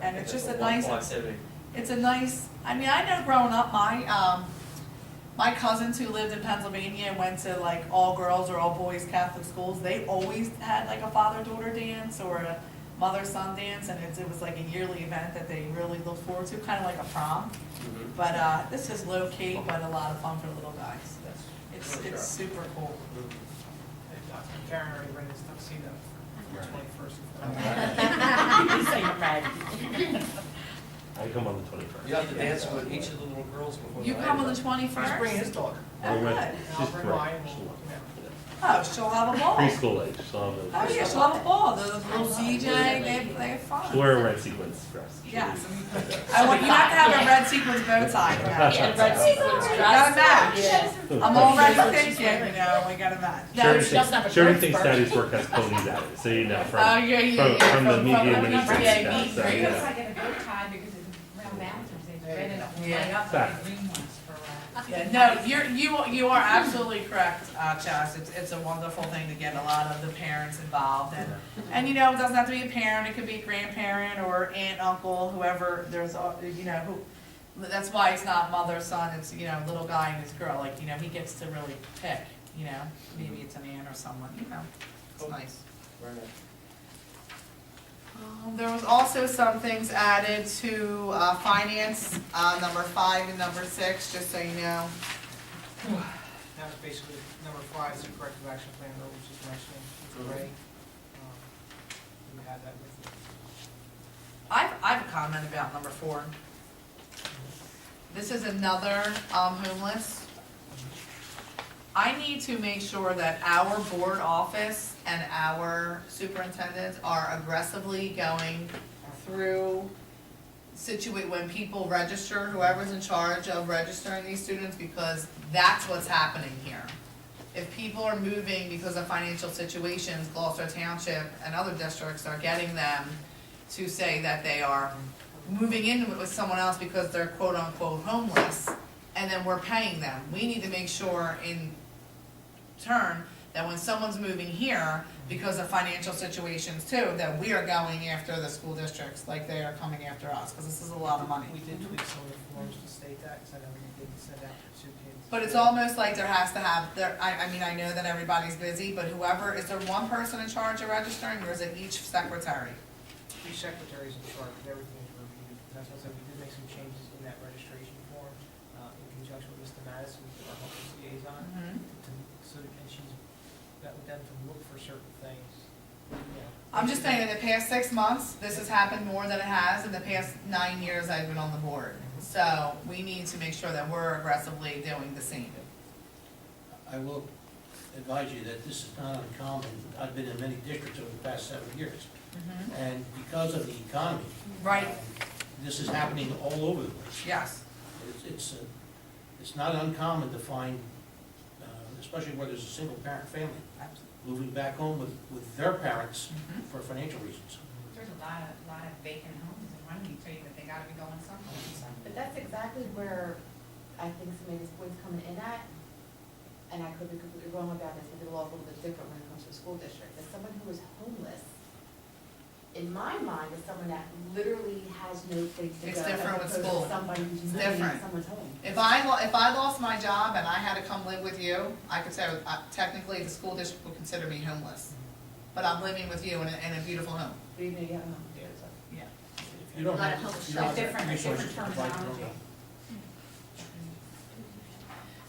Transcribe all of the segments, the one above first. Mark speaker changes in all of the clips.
Speaker 1: And it's just a
Speaker 2: wonderful
Speaker 1: nice,
Speaker 2: Activity.
Speaker 1: it's a nice, I mean, I know growing up, my, um, my cousins who lived in Pennsylvania and went to like all girls or all boys Catholic schools, they always had like a father-daughter dance or a mother-son dance, and it's, it was like a yearly event that they really looked forward to, kind of like a prom.
Speaker 2: Mhm.
Speaker 1: But, uh, this is low-key, but a lot of fun for little guys. It's,
Speaker 2: Sure.
Speaker 1: it's super cool.
Speaker 3: Karen already read his tuxedo for the twenty-first.
Speaker 4: I come on the twenty-first.
Speaker 2: You have to dance with each of the little girls before.
Speaker 1: You come on the twenty-first?
Speaker 3: Just bring his dog.
Speaker 1: Oh, good.
Speaker 3: And
Speaker 4: She's
Speaker 3: I'll bring mine.
Speaker 4: correct. She's
Speaker 1: Oh, she'll have a ball.
Speaker 4: Preschool age, so I'm
Speaker 1: Oh, yeah, she'll have a ball. The little DJ, they, they have fun.
Speaker 4: She's wearing red sequins dress.
Speaker 1: Yes. I want, you have to have a red sequins bow tie. yeah.
Speaker 5: Yeah, red sequins
Speaker 1: We
Speaker 5: dress.
Speaker 1: Got a match.
Speaker 5: Yeah.
Speaker 1: I'm already thinking, you know, we got a match.
Speaker 5: No,
Speaker 4: Sherry
Speaker 5: she
Speaker 4: thinks-
Speaker 5: doesn't have a
Speaker 4: Sherry
Speaker 5: dress
Speaker 4: thinks
Speaker 5: first.
Speaker 4: Daddy's work has ponies at it, so you know, from,
Speaker 1: Oh, yeah, yeah,
Speaker 4: from,
Speaker 1: yeah,
Speaker 4: from the
Speaker 1: from-
Speaker 4: media
Speaker 1: from the
Speaker 4: ministry.
Speaker 1: media,
Speaker 4: stuff,
Speaker 1: me
Speaker 4: so,
Speaker 1: too.
Speaker 6: It looks
Speaker 4: yeah.
Speaker 6: like a good time because it's round mountains, they spread it all
Speaker 1: Yeah.
Speaker 6: way up,
Speaker 4: Fact.
Speaker 6: like green ones for, uh,
Speaker 1: Yeah, no, you're, you, are- you are absolutely correct, uh, Chaz. It's, it's a wonderful thing to get a lot of the parents involved and, and you know, it doesn't have to be a parent, it could be a grandparent or aunt, uncle, whoever, there's, a- you know, who, that's why it's not mother, son, it's, you know, little guy and his girl, like, you know, he gets to really pick, you know, maybe it's an aunt or someone, you know, it's nice. Um, There was also some things added to uh, finance, uh, number five and number six, just so you know.
Speaker 3: That was basically, number five is the corrective action plan, that was just mentioning,
Speaker 1: Mm-hmm.
Speaker 3: it's already, um, we had that with you.
Speaker 1: I've, I have a comment about number four. This is another um, homeless. I need to make sure that our board office and our superintendents are aggressively going through situate, when people register, whoever's in charge of registering these students, because that's what's happening here. If people are moving because of financial situations, Gloucester Township and other districts are getting them to say that they are moving in with- with someone else because they're quote unquote homeless, and then we're paying them. We need to make sure in turn that when someone's moving here because of financial situations too, that we are going after the school districts like they are coming after us, because this is a lot of money.
Speaker 3: We did tweak some of the forms to state that, because I know we didn't send out for two kids.
Speaker 1: But it's almost like there has to have, there, I, I mean, I know that everybody's busy, but whoever, is there one person in charge of registering or is it each secretary?
Speaker 3: Three secretaries in charge, and everything is reviewed, that's why I said we did make some changes in that registration form, uh, in conjunction with Mr. Madison, our homeless liaison,
Speaker 6: Mm-hmm.
Speaker 3: to, so, and she's, that would then to look for certain things, you know.
Speaker 1: I'm just saying, in the past six months, this has happened more than it has in the past nine years I've been on the board. So we need to make sure that we're aggressively doing the same.
Speaker 7: I will advise you that this is not uncommon. I've been in many districts over the past seven years,
Speaker 6: Mm-hmm.
Speaker 7: and because of the economy.
Speaker 1: Right,
Speaker 7: um, This is happening all over the place.
Speaker 1: yes.
Speaker 7: It's, it's, uh, it's not uncommon to find, uh, especially where there's a single parent family, moving back home with, with their parents
Speaker 1: Mhm.
Speaker 7: for financial reasons.
Speaker 6: there's a lot of, lot of vacant homes in Runnymede too, that they gotta be going somewhere.
Speaker 5: Uh, But that's exactly where I think some of these points coming in at, and I could be completely wrong about this, but the law is a little bit different when it comes to a school district, that someone who is homeless, in my mind, is someone that literally has no place to go.
Speaker 1: It's
Speaker 5: as
Speaker 1: different with
Speaker 5: opposed to
Speaker 1: school.
Speaker 5: Somebody who's
Speaker 1: It's
Speaker 5: living
Speaker 1: different.
Speaker 5: in someone's home.
Speaker 1: If I, lo- if I lost my job and I had to come live with you, I could say uh, technically the school district would consider me homeless. But I'm living with you in a, in a beautiful home.
Speaker 5: But even if you have a home.
Speaker 1: Yeah.
Speaker 7: If you don't
Speaker 5: A lot
Speaker 7: have-
Speaker 5: of help,
Speaker 7: if you don't have
Speaker 6: different-
Speaker 7: resources
Speaker 6: different
Speaker 7: to provide your own
Speaker 6: terminology.
Speaker 7: help.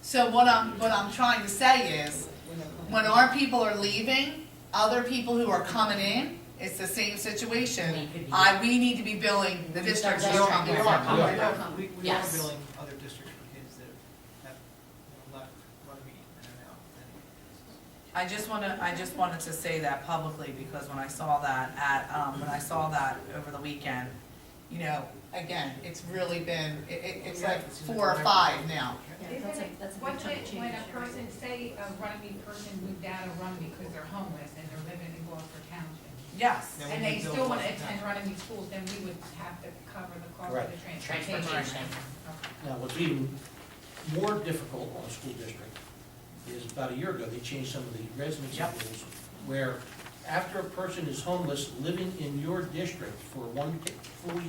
Speaker 1: So what I'm, what I'm trying to say is,
Speaker 5: when they're home.
Speaker 1: when our people are leaving, other people who are coming in, it's the same situation. I, we need to be billing the districts who are
Speaker 3: We
Speaker 1: coming
Speaker 3: are,
Speaker 1: in.
Speaker 3: we are, we are, we- we are
Speaker 5: Yes.
Speaker 3: billing other districts for kids that have, you know, left Runnymede and are now
Speaker 1: I
Speaker 3: in
Speaker 1: just wanna, I just wanted to say that publicly, because when I saw that at, um, when I saw that over the weekend, you know, again, it's really been, it, it, it's like four or five now.
Speaker 6: Yeah, that's a- that's a
Speaker 5: What
Speaker 6: big chunk of
Speaker 5: did-
Speaker 6: change.
Speaker 5: when
Speaker 6: You're
Speaker 5: a
Speaker 6: right.
Speaker 5: person-
Speaker 6: say a Runnymede person moved out of Runnymede because they're homeless and they're living in Gloucester Township,
Speaker 1: Yes.
Speaker 3: Then we
Speaker 6: and they
Speaker 3: can bill
Speaker 6: still wanna
Speaker 3: Gloucester
Speaker 6: attend
Speaker 3: Township.
Speaker 6: Runnymede schools, then we would have to cover the cost of
Speaker 7: Correct.
Speaker 6: the transportation.
Speaker 5: Transportation.
Speaker 6: Okay.
Speaker 7: Now, what's even more difficult on a school district is about a year ago, they changed some of the residency
Speaker 1: Yep.
Speaker 7: rules where after a person is homeless, living in your district for one full